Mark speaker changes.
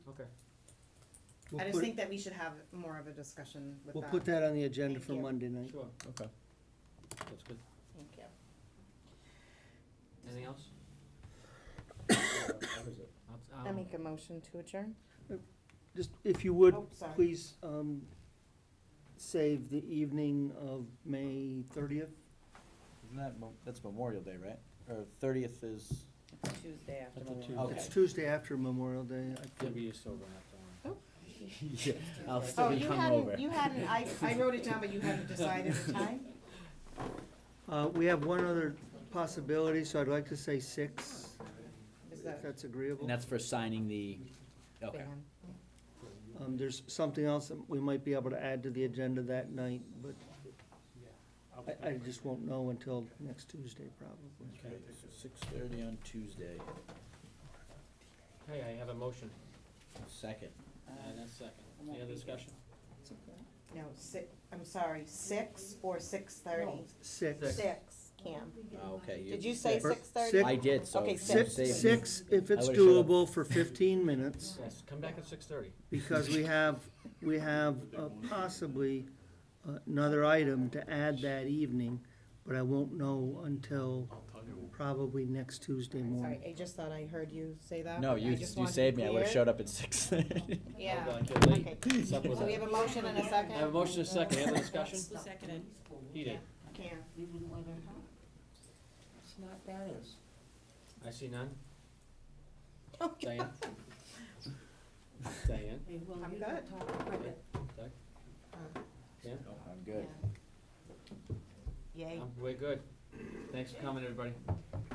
Speaker 1: Okay.
Speaker 2: I
Speaker 3: We'll
Speaker 2: just
Speaker 3: put-
Speaker 2: think that we should have more of a discussion with
Speaker 3: We'll put that on the agenda
Speaker 2: Thank
Speaker 3: for
Speaker 2: you.
Speaker 3: Monday night.
Speaker 1: Sure, okay. That's good.
Speaker 2: Thank you.
Speaker 4: Anything else? I'll-
Speaker 2: I
Speaker 4: I'll-
Speaker 2: make a motion to adjourn.
Speaker 3: Just, if you would,
Speaker 2: Oh, sorry.
Speaker 3: please, um, save the evening of May thirtieth.
Speaker 5: Isn't that, Mo- that's Memorial Day, right? Or thirtieth is,
Speaker 2: Tuesday Oh, after
Speaker 1: That's a
Speaker 2: Memorial.
Speaker 1: Tuesday.
Speaker 5: Okay.
Speaker 3: It's Tuesday after Memorial Day, I
Speaker 1: Yeah,
Speaker 3: think.
Speaker 1: we just over that one.
Speaker 5: yeah, I'll
Speaker 2: Oh,
Speaker 5: still be
Speaker 2: you
Speaker 5: hungover.
Speaker 2: hadn't, you hadn't, I, I wrote it down, but you hadn't decided the time?
Speaker 3: Uh, we have one other possibility, so I'd like to say six,
Speaker 2: Is
Speaker 3: if
Speaker 2: that?
Speaker 3: that's agreeable.
Speaker 5: And that's for signing the, okay.
Speaker 2: Dan?
Speaker 3: Um, there's something else that we might be able to add to the agenda that night, but I, I just won't know until next Tuesday, probably.
Speaker 1: Okay.
Speaker 5: Six thirty on Tuesday,
Speaker 1: Okay, I have a motion
Speaker 5: second.
Speaker 2: Uh,
Speaker 1: and a second. Any other discussion?
Speaker 2: No, si, I'm sorry, six or six thirty?
Speaker 3: Six.
Speaker 2: Six, Cam.
Speaker 5: Oh, Okay.
Speaker 2: Did you say
Speaker 3: Six.
Speaker 2: six thirty?
Speaker 3: Six.
Speaker 5: I did, so.
Speaker 2: Okay,
Speaker 5: save
Speaker 3: Six,
Speaker 5: me.
Speaker 3: six, if it's
Speaker 5: I would've shut up.
Speaker 3: doable for fifteen minutes,
Speaker 1: Yes, come back at six thirty.
Speaker 3: because we have, we have uh, possibly uh, another item to add that evening, but I won't know until probably next Tuesday
Speaker 2: Sorry,
Speaker 3: morning.
Speaker 2: I just thought I heard you say that.
Speaker 5: No,
Speaker 2: I
Speaker 5: you,
Speaker 2: just
Speaker 5: you
Speaker 2: wanted to
Speaker 5: saved me,
Speaker 2: be
Speaker 5: I would've
Speaker 2: clear.
Speaker 5: showed up at six thirty.
Speaker 2: Yeah,
Speaker 1: Okay.
Speaker 2: okay. So we have a motion and a second?
Speaker 1: I have a motion and a second. Any other discussion?
Speaker 6: seconded?
Speaker 1: He did.
Speaker 2: Cam,
Speaker 6: It's not balanced.
Speaker 1: I see none. Diane? Diane?
Speaker 6: Hey, well,
Speaker 2: I'm
Speaker 6: you
Speaker 2: good.
Speaker 6: don't talk about it.
Speaker 5: I'm good.
Speaker 2: yay.
Speaker 1: Um, We're good. Thanks for coming, everybody.